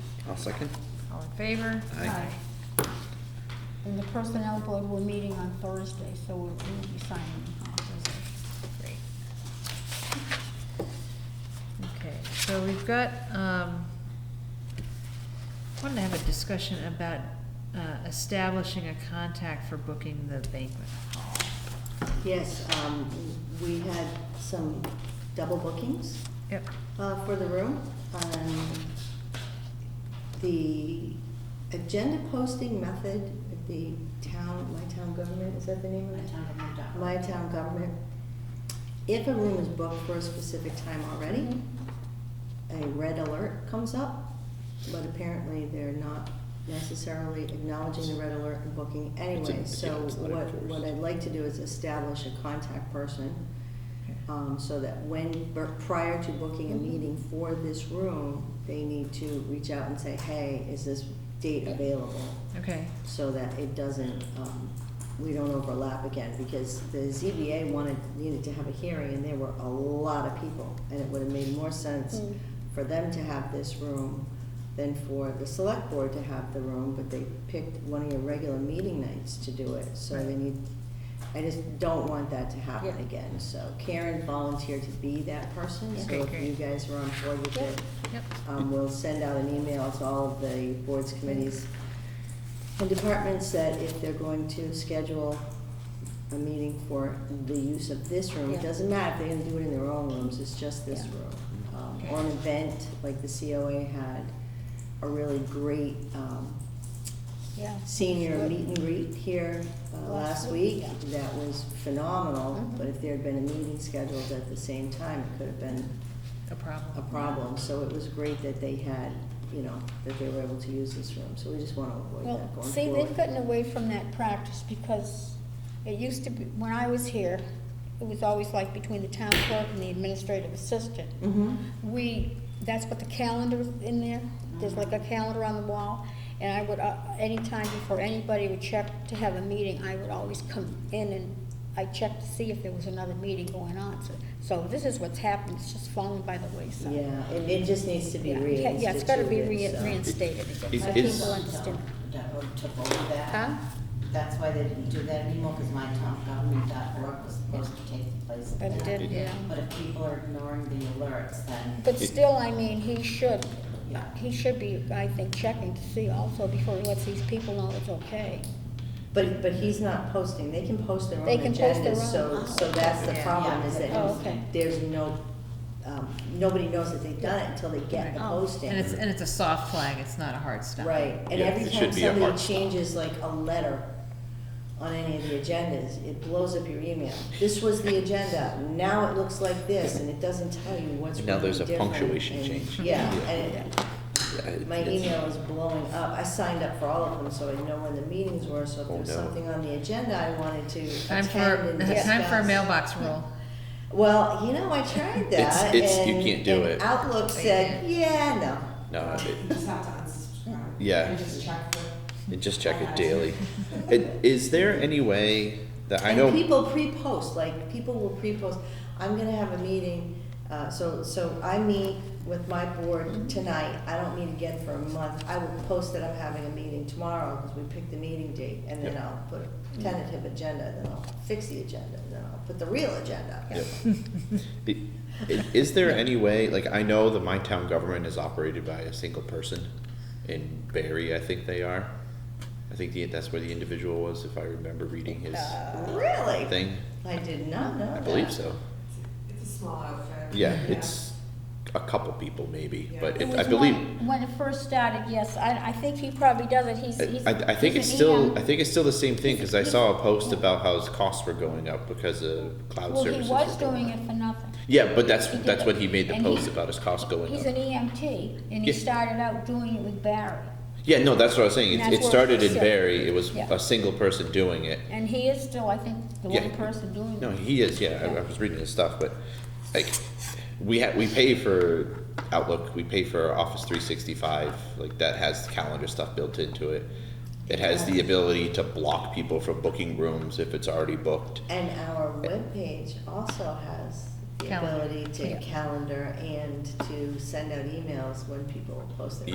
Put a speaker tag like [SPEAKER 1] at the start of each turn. [SPEAKER 1] I'll second.
[SPEAKER 2] All in favor?
[SPEAKER 1] Aye.
[SPEAKER 3] And the personnel board, we're meeting on Thursday, so we'll we'll be signing on Thursday.
[SPEAKER 2] Great. Okay, so we've got, um, wanted to have a discussion about uh, establishing a contact for booking the banquet hall.
[SPEAKER 4] Yes, um, we had some double bookings
[SPEAKER 2] Yep,
[SPEAKER 4] uh, for the room. Um, The agenda posting method, at the town, my town government, is that the name of it? My town government. If a room is booked for a specific time already,
[SPEAKER 1] Mm-hmm.
[SPEAKER 4] a red alert comes up, but apparently they're not necessarily acknowledging the red alert and booking anyway.
[SPEAKER 1] It's a-
[SPEAKER 4] So
[SPEAKER 1] yeah, it's not
[SPEAKER 4] what,
[SPEAKER 1] enforced.
[SPEAKER 4] what I'd like to do is establish a contact person,
[SPEAKER 2] okay.
[SPEAKER 4] um, so that when, or prior to booking a meeting for this room, they need to reach out and say, hey, is this date available?
[SPEAKER 2] okay,
[SPEAKER 4] so that it doesn't, um, we don't overlap again, because the ZBA wanted, needed to have a hearing, and there were a lot of people, and it would have made more sense
[SPEAKER 3] Mm.
[SPEAKER 4] for them to have this room than for the select board to have the room, but they picked one of your regular meeting nights to do it, so they
[SPEAKER 2] Right.
[SPEAKER 4] need, I just don't want that to happen
[SPEAKER 3] Yeah.
[SPEAKER 4] again, so Karen volunteered to be that person, so
[SPEAKER 2] Okay,
[SPEAKER 4] if
[SPEAKER 2] great.
[SPEAKER 4] you guys are on board with it,
[SPEAKER 2] yep,
[SPEAKER 4] um, we'll send out an email to all of the boards, committees, and departments that if they're going to schedule a meeting for the use of this room, it
[SPEAKER 3] Yeah.
[SPEAKER 4] doesn't matter if they're gonna do it in their own rooms, it's just this
[SPEAKER 3] Yeah.
[SPEAKER 4] room. Um, Or an event, like the COA had, a really great, um,
[SPEAKER 3] Yeah.
[SPEAKER 4] senior meet and greet here uh,
[SPEAKER 3] Last
[SPEAKER 4] last
[SPEAKER 3] week,
[SPEAKER 4] week. That was phenomenal,
[SPEAKER 3] Mhm.
[SPEAKER 4] but if there had been a meeting scheduled at the same time, it could have been
[SPEAKER 2] a problem.
[SPEAKER 4] a problem, so it was great that they had, you know, that they were able to use this room, so we just wanna avoid
[SPEAKER 3] Well,
[SPEAKER 4] that going
[SPEAKER 3] see, they've
[SPEAKER 4] forward.
[SPEAKER 3] gotten away from that practice because it used to be, when I was here, it was always like between the town clerk and the administrative assistant.
[SPEAKER 4] Mm-hmm,
[SPEAKER 3] We, that's what the calendar is in there, there's like a calendar on the wall, and I would, uh, anytime before anybody would check to have a meeting, I would always come in and I checked to see if there was another meeting going on, so, so this is what's happened, it's just fallen by the wayside.
[SPEAKER 4] yeah, it, it just needs to be
[SPEAKER 3] Yeah,
[SPEAKER 4] reinstituted.
[SPEAKER 3] Yeah, it's gotta be re-
[SPEAKER 4] so-
[SPEAKER 3] reinstated again,
[SPEAKER 1] Is-
[SPEAKER 3] so
[SPEAKER 1] is-
[SPEAKER 3] people understand.
[SPEAKER 5] Government.org took over
[SPEAKER 3] Huh?
[SPEAKER 5] that. That's why they didn't do that anymore, because mytowngovernment.org was supposed to take the place of
[SPEAKER 3] But
[SPEAKER 5] that.
[SPEAKER 3] it did, yeah.
[SPEAKER 5] But if people are ignoring the alerts, then.
[SPEAKER 3] But still, I mean, he should,
[SPEAKER 5] Yeah.
[SPEAKER 3] he should be, I think, checking to see also before he lets these people know it's okay.
[SPEAKER 4] But, but he's not posting, they can post their own
[SPEAKER 3] They can post their
[SPEAKER 4] agendas,
[SPEAKER 3] own.
[SPEAKER 4] so, so that's the
[SPEAKER 5] Yeah,
[SPEAKER 4] problem,
[SPEAKER 5] yeah.
[SPEAKER 4] is
[SPEAKER 3] Oh, okay.
[SPEAKER 4] that there's no, um, nobody knows that they've done it until they get the
[SPEAKER 3] Oh.
[SPEAKER 4] posting.
[SPEAKER 2] And it's, and it's a soft flag, it's not a hard stop.
[SPEAKER 4] Right, and
[SPEAKER 1] Yeah,
[SPEAKER 4] every
[SPEAKER 1] it
[SPEAKER 4] time
[SPEAKER 1] should be a
[SPEAKER 4] somebody
[SPEAKER 1] hard stop.
[SPEAKER 4] changes like a letter on any of the agendas, it blows up your email. This was the agenda, now it looks like this, and it doesn't tell you what's
[SPEAKER 1] Now
[SPEAKER 4] really
[SPEAKER 1] there's a
[SPEAKER 4] different,
[SPEAKER 1] punctuation
[SPEAKER 4] and-
[SPEAKER 1] change.
[SPEAKER 4] Yeah,
[SPEAKER 1] Yeah.
[SPEAKER 4] and it- my email is blowing up. I signed up for all of them, so I know when the meetings were, so if
[SPEAKER 1] Oh,
[SPEAKER 4] there was
[SPEAKER 1] no.
[SPEAKER 4] something on the agenda I wanted to
[SPEAKER 2] Time
[SPEAKER 4] attend
[SPEAKER 2] for,
[SPEAKER 4] and discuss.
[SPEAKER 2] time for a mailbox rule.
[SPEAKER 4] Well, you know, I tried
[SPEAKER 1] It's-
[SPEAKER 4] that,
[SPEAKER 1] it's- you
[SPEAKER 4] and-
[SPEAKER 1] can't do
[SPEAKER 4] and
[SPEAKER 1] it.
[SPEAKER 4] Outlook said, yeah, no.
[SPEAKER 1] No,
[SPEAKER 6] You
[SPEAKER 1] it,
[SPEAKER 6] just have to unsubscribe.
[SPEAKER 1] Yeah.
[SPEAKER 6] And just check for,
[SPEAKER 1] it- just check it daily. It- Is there any way that, I
[SPEAKER 4] and
[SPEAKER 1] know,
[SPEAKER 4] people pre-post like people will pre-post i'm going to have a meeting uh, so so i meet with my board tonight i don't meet again for a month i will post that i'm having a meeting tomorrow because we picked the meeting date and then
[SPEAKER 1] Yep.
[SPEAKER 4] i'll put a tentative agenda and then i'll fix the agenda and then i'll put the real agenda
[SPEAKER 1] Yep. i- i- is there any way, like, I know that my town government is operated by a single person in Barry, I think they are. I think the, that's where the individual was, if I remember reading his
[SPEAKER 4] Uh, really
[SPEAKER 1] thing.
[SPEAKER 4] i did not know
[SPEAKER 1] I believe
[SPEAKER 4] that.
[SPEAKER 1] so.
[SPEAKER 6] it's a small outfit.
[SPEAKER 1] Yeah, it's a couple people maybe, but
[SPEAKER 3] It
[SPEAKER 1] it, I
[SPEAKER 3] was
[SPEAKER 1] believe.
[SPEAKER 3] when- When it first started, yes, I, I think he probably does it, he's, he's.
[SPEAKER 1] I, I think it's
[SPEAKER 3] he's an E
[SPEAKER 1] still,
[SPEAKER 3] EM.
[SPEAKER 1] I think it's still the same thing, cause I
[SPEAKER 3] He's-
[SPEAKER 1] saw a post
[SPEAKER 3] yeah.
[SPEAKER 1] about how his costs were going up because of cloud
[SPEAKER 3] Well, he
[SPEAKER 1] services.
[SPEAKER 3] was
[SPEAKER 1] were
[SPEAKER 3] doing
[SPEAKER 1] up.
[SPEAKER 3] it for nothing.
[SPEAKER 1] Yeah, but that's,
[SPEAKER 3] He did
[SPEAKER 1] that's
[SPEAKER 3] it.
[SPEAKER 1] what he made the
[SPEAKER 3] And
[SPEAKER 1] post
[SPEAKER 3] he's-
[SPEAKER 1] about his costs going
[SPEAKER 3] He's an
[SPEAKER 1] up.
[SPEAKER 3] EMT, and he
[SPEAKER 1] Yeah.
[SPEAKER 3] started out doing it with Barry,
[SPEAKER 1] Yeah, no, that's what I was saying,
[SPEAKER 3] And
[SPEAKER 1] it, it
[SPEAKER 3] that's where
[SPEAKER 1] started
[SPEAKER 3] he
[SPEAKER 1] in
[SPEAKER 3] said-
[SPEAKER 1] Barry, it was
[SPEAKER 3] Yeah.
[SPEAKER 1] a single person doing it.
[SPEAKER 3] and he is still, I think, the
[SPEAKER 1] Yeah.
[SPEAKER 3] one person doing it.
[SPEAKER 1] No, he is, yeah, I,
[SPEAKER 3] Yeah.
[SPEAKER 1] I was reading his stuff, but, like, we ha we pay for Outlook, we pay for Office three sixty-five, like, that has calendar stuff built into it. It has the ability to block people from booking rooms if it's already booked.
[SPEAKER 4] and our webpage also has the
[SPEAKER 2] Calendar,
[SPEAKER 4] ability to
[SPEAKER 2] yeah.
[SPEAKER 4] calendar and to send out emails when people post their